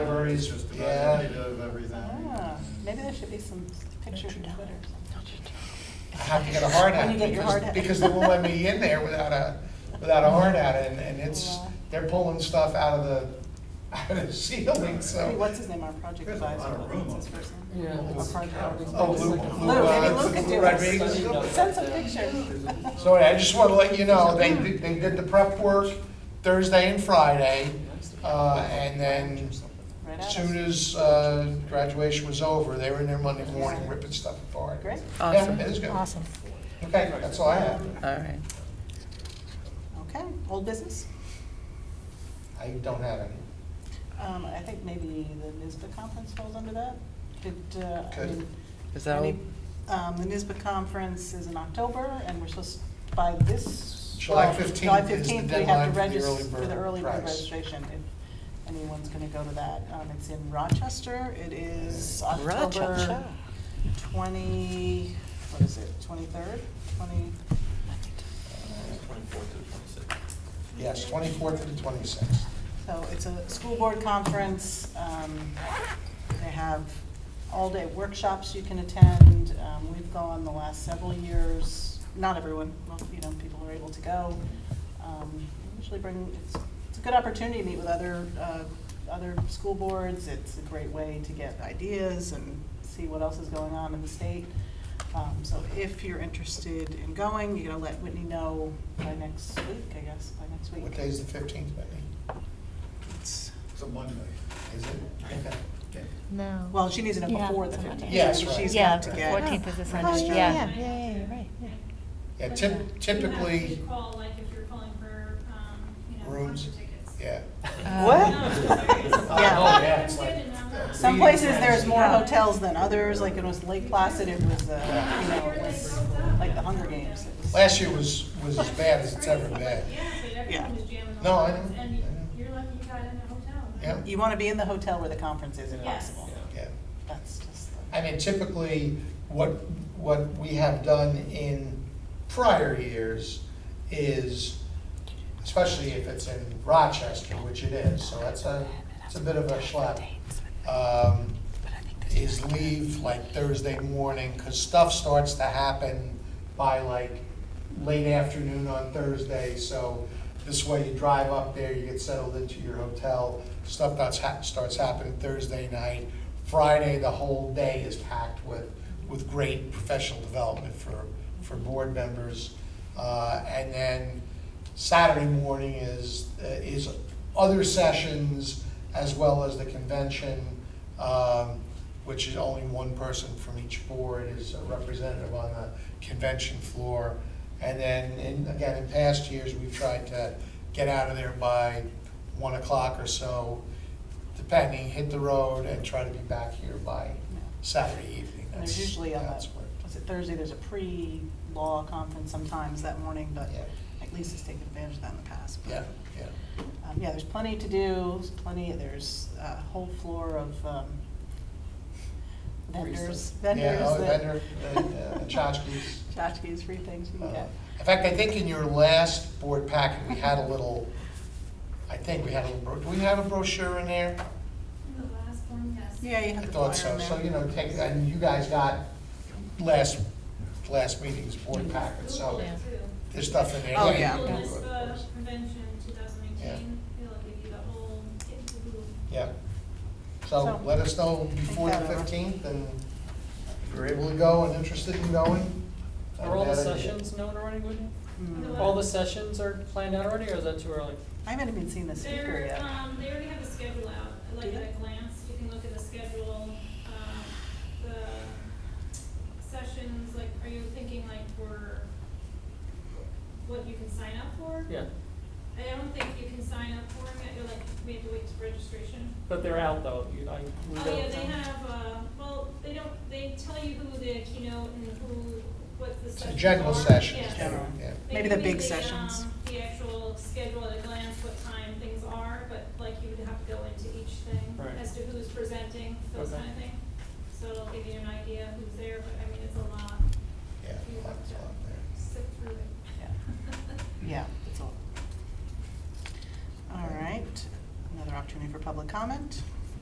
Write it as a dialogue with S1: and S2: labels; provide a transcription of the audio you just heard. S1: libraries,
S2: Just about
S1: yeah.
S2: of everything.
S3: Ah, Maybe there should be some pictures on Twitter. or something.
S1: I have to get a hard
S3: When
S1: hat
S3: you get your hard
S1: because,
S3: hat.
S1: because they won't let me in there without a, without a hard hat and, and it's,
S3: Yeah.
S1: they're pulling stuff out of the, out of the ceiling,
S3: Maybe
S1: so.
S3: What's his name, our project
S2: There's a lot
S3: advisor?
S2: of room
S3: What's his
S2: up
S3: first name?
S4: Yeah.
S3: Our project-
S1: Oh, Lou, Lou,
S3: Lou, maybe
S1: uh,
S3: Lou could
S1: Lou
S3: do
S1: Rodriguez.
S3: it. Send some pictures.
S1: So anyway, I just want to let you know, they, did- they did the prep work Thursday and Friday. Uh, and then
S3: Right
S1: as
S3: at
S1: soon
S3: us.
S1: as, uh, graduation was over, they were in there Monday morning ripping stuff apart.
S3: Great,
S4: Awesome.
S1: Yeah, it is good.
S4: Awesome.
S1: Okay, that's all I have.
S4: All right.
S3: okay. Old business?
S1: I don't have any.
S3: Um, I think maybe the NISBA conference falls under that. Did, uh, I
S1: Good.
S3: mean,
S4: Is that
S3: any-
S4: all?
S3: Um, the NISBA conference is in October, and we're supposed, by this.
S1: July
S3: well,
S1: 15th
S3: July
S1: is the
S3: 15th, we
S1: deadline
S3: have to
S1: for the
S3: register
S1: early bird
S3: For the early bird
S1: price.
S3: registration, if anyone's gonna go to that. Um, it's in Rochester, it is October
S4: Rochester.
S3: twenty, what is it, twenty-third, twenty?
S5: Twenty-fourth to twenty-sixth.
S1: Yes, twenty-fourth to the twenty-sixth.
S3: So it's a school board conference. Um, They have all-day workshops you can attend. Um, We've gone the last several years, not everyone, well, you know, people are able to go. Um, Usually bring, it's, it's a good opportunity to meet with other, uh, other school boards. It's a great way to get ideas and see what else is going on in the state. Um, So if you're interested in going, you're gonna let Whitney know by next week, I guess, by next week.
S1: What day is the fifteenth, Whitney?
S3: It's-
S2: It's a Monday.
S1: Is it? Okay.
S6: No.
S3: Well, she needs to know
S7: Yeah.
S3: before the 15th.
S1: Yes, right.
S3: She's
S7: Yeah,
S3: got to get.
S7: 14th is this Sunday,
S3: registered.
S7: yeah.
S6: Yeah, yeah, yeah, you're right, yeah.
S1: Yeah,
S7: What's
S1: typ-
S8: uh, You have
S1: typically,
S8: to call, like, if you're calling for, um, you know,
S1: Rooms.
S8: concert tickets.
S1: yeah.
S3: What?
S8: No, I'm serious.
S3: Yeah.
S1: yeah, it's like-
S8: Good enough.
S1: yeah.
S3: Some places, there's more hotels than others, like it was Lake Placid, it was, uh, you know, it was like the Hunger Games. It was-
S1: Last year was, was as bad as it's ever been.
S8: Yeah, but
S3: Yeah.
S8: everyone was jamming on.
S1: No, I
S8: those,
S1: know,
S8: And
S1: I know.
S8: you're lucky you got in a hotel.
S1: Yeah.
S3: You want to be in the hotel where the conference is if
S8: Yes.
S3: possible.
S1: Yeah.
S3: That's just, the-
S1: I mean, typically, what, what we have done in prior years is, especially if it's in Rochester, which it is, so that's a, it's a bit of a schlep. um, Is leave like Thursday morning, because stuff starts to happen by like late afternoon on Thursday, so this way you drive up there, you get settled into your hotel, stuff that's hap, starts happening Thursday night. Friday, the whole day is packed with, with great professional development for, for board members. Uh, and then Saturday morning is, uh, is other sessions as well as the convention, um, which is only one person from each board is a representative on the convention floor. And then, in again, in past years, we've tried to get out of there by one o'clock or so, depending, hit the road and try to be back here by
S3: yeah.
S1: Saturday evening.
S3: And there's
S1: That's-
S3: usually on
S1: that's
S3: that,
S1: what-
S3: was it Thursday, there's a pre-law conference sometimes that morning, but
S1: Yeah.
S3: at least it's taken advantage of that in the past. but-
S1: Yeah, yeah.
S3: Um, yeah, there's plenty to do, there's plenty, there's a whole floor of, um, vendors, vendors.
S1: Yeah, oh,
S3: that-
S1: vendor, uh, tchotchkes.
S3: Tchotchkes, free things you
S1: Uh,
S3: can get.
S1: In fact, I think in your last board packet, we had a little, I think we had a little, bro- do we have a brochure in there?
S8: The last one, yes.
S3: Yeah, you
S1: I
S3: have the
S1: thought
S3: flyer
S1: so,
S3: in there.
S1: so, you know, take, and you guys got last, last meeting's board packet, so
S8: Google it, too.
S1: there's stuff in there.
S3: Oh,
S1: you
S3: yeah.
S8: Google
S1: can
S8: this,
S1: Google it, of
S8: uh,
S1: course.
S8: convention two thousand eighteen, it'll give you the whole, it's Google.
S1: Yeah.
S3: So-
S1: So let us know before the
S3: that over.
S1: fifteenth, and if you're able to go and interested in going. not a
S9: Are all the
S1: bad idea.
S9: sessions known already, Whitney?
S1: Uh-huh.
S3: Mm.
S9: All the sessions are planned out already, or is that too early?
S3: I haven't even seen the speaker
S8: They're,
S3: yet.
S8: um, they already have a schedule out, like
S3: Do
S8: at
S3: they?
S8: a glance, you can look at the schedule, um, the sessions, like, are you thinking like for what you can sign up for?
S9: Yeah,
S8: I don't think you can sign up for them, yet. you're like, we have to wait for registration.
S9: but they're out though. You- I- we
S8: Oh,
S9: don't-
S8: yeah, they have, uh, well, they don't, they tell you who the keynote and who, what the
S1: It's a
S8: sessions
S1: General
S8: are.
S1: sessions,
S8: Yes.
S1: yeah, yeah.
S3: Maybe
S8: They
S3: the
S8: give you
S3: big sessions.
S8: um, The actual schedule at a glance, what time things are, but like you would have to go into each thing
S9: Right.
S8: as to who's presenting, those
S9: Okay.
S8: kind of thing. So it'll give you an idea who's there, but I mean, it's a lot.
S1: Yeah,
S8: You have
S1: lots
S8: to
S1: on there.
S8: Sit through it.
S3: Yeah. Yeah, that's all. All right, another opportunity for public comment.